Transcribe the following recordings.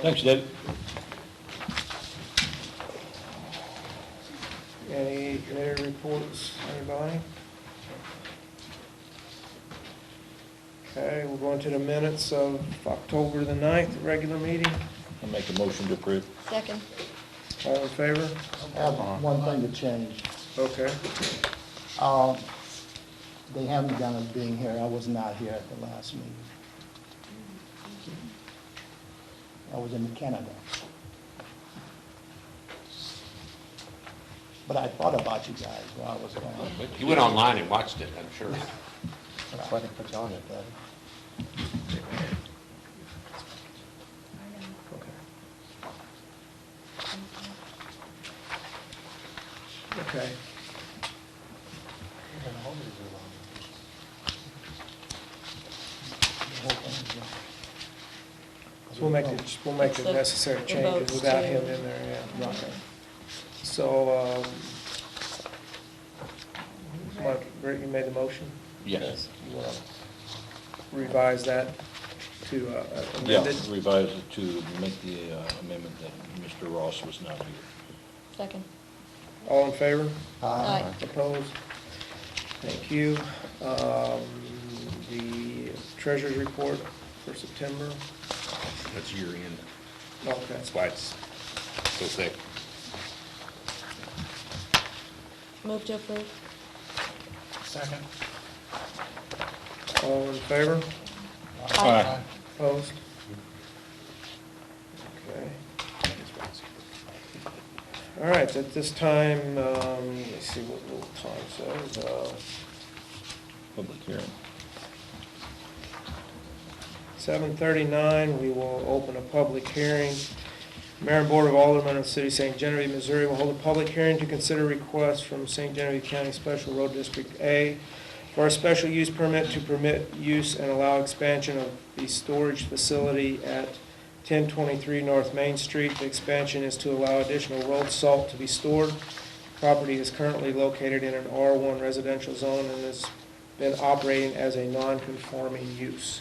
Thanks, David. Any committee reports, anybody? Okay, we're going to the minutes of October the ninth, regular meeting. I'll make a motion to approve. Second. All in favor? I have one thing to change. Okay. Um, They haven't done it being here, I was not here at the last meeting. I was in Canada. But I thought about you guys while I was gone. You went online and watched it, I'm sure. That's why they put you on it, buddy. Okay. The whole thing, So we'll make the, we'll make the necessary The changes votes Mm-hmm. without to- him in there, yeah. yeah. So, um, Mike, Rick, you made the motion? Yes. You wanna Revise that to uh, Yeah, amend it? revise it to make the uh, amendment that Mr. Ross was not here. Second. All in favor? Uh, Aye. Opposed? Thank you. Um, The treasurer's report for September. That's year end. Okay. That's why it's so thick. Move to approve. Second. All in favor? Aye. Opposed? Okay. All right, at this time, um, let's see what little time says. uh, Public hearing. 7:39, we will open a public hearing. Mayor and Board of Aldermen of the City of St. Genevieve, Missouri will hold a public hearing to consider requests from St. Genevieve County Special Road District A for a special use permit to permit use and allow expansion of the storage facility at 1023 North Main Street. The expansion is to allow additional road salt to be stored. Property is currently located in an R1 residential zone and has been operating as a non-conforming use.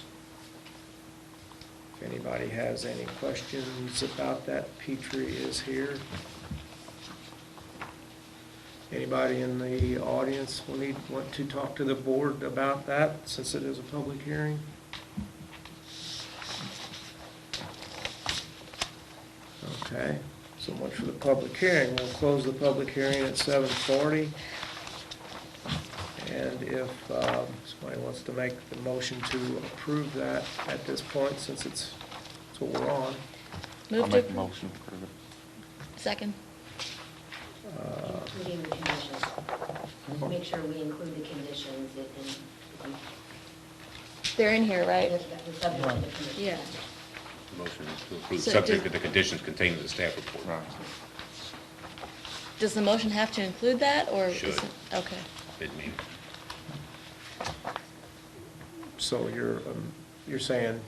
If anybody has any questions about that, Petrie is here. Anybody in the audience will need, want to talk to the board about that, since it is a public hearing? Okay, so much for the public hearing. We'll close the public hearing at seven forty. And if um, somebody wants to make the motion to approve that at this point, since it's, it's what we're on, Move to approve. motion to approve it. Second. uh, Including the conditions. Make sure we include the conditions in, in- They're in here, right? the subject of the conditions. Yeah. Motion is to approve, So subject to did- the conditions contained in the staff report. Right. Does the motion have to include that, or? Should. is it- Okay. Didn't mean, so you're, um, you're saying,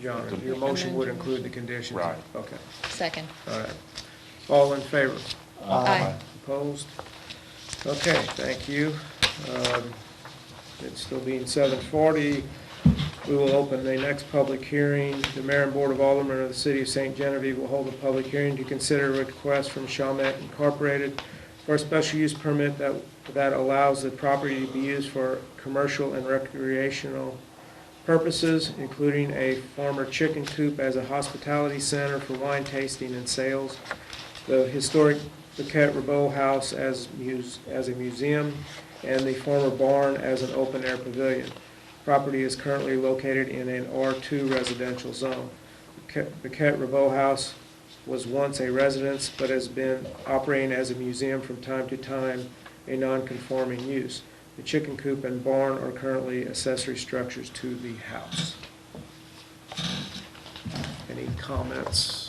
John, your motion would include the conditions? Right. Okay, Second. all right. All in favor? Uh, Aye. Opposed? Okay, thank you. Um, It's still being seven forty. We will open the next public hearing. The mayor and board of aldermen of the city of St. Genevieve will hold a public hearing to consider a request from Chalmette Incorporated for a special use permit that, that allows the property to be used for commercial and recreational purposes, including a former chicken coop as a hospitality center for wine tasting and sales, the historic Paquette Rabeau House as muse, as a museum, and the former barn as an open-air pavilion. Property is currently located in an R2 residential zone. Paquette- Paquette Rabeau House was once a residence, but has been operating as a museum from time to time, a non-conforming use. The chicken coop and barn are currently accessory structures to the house. Any comments?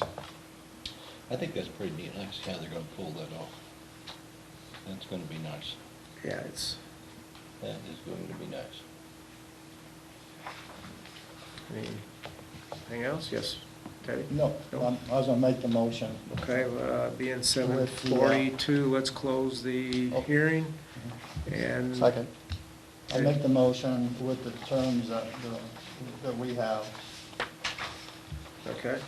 I think that's pretty neat. I see how they're gonna pull that off. That's gonna be nice. Yeah, it's, That is going to be nice. anything else? Yes, Teddy? No, I'm- I was gonna make the motion. Okay, uh, being seven With the, uh, forty-two, let's close the Oh. Mm-hmm. hearing and. Second. I make the motion with the terms that, the- that we have. Okay,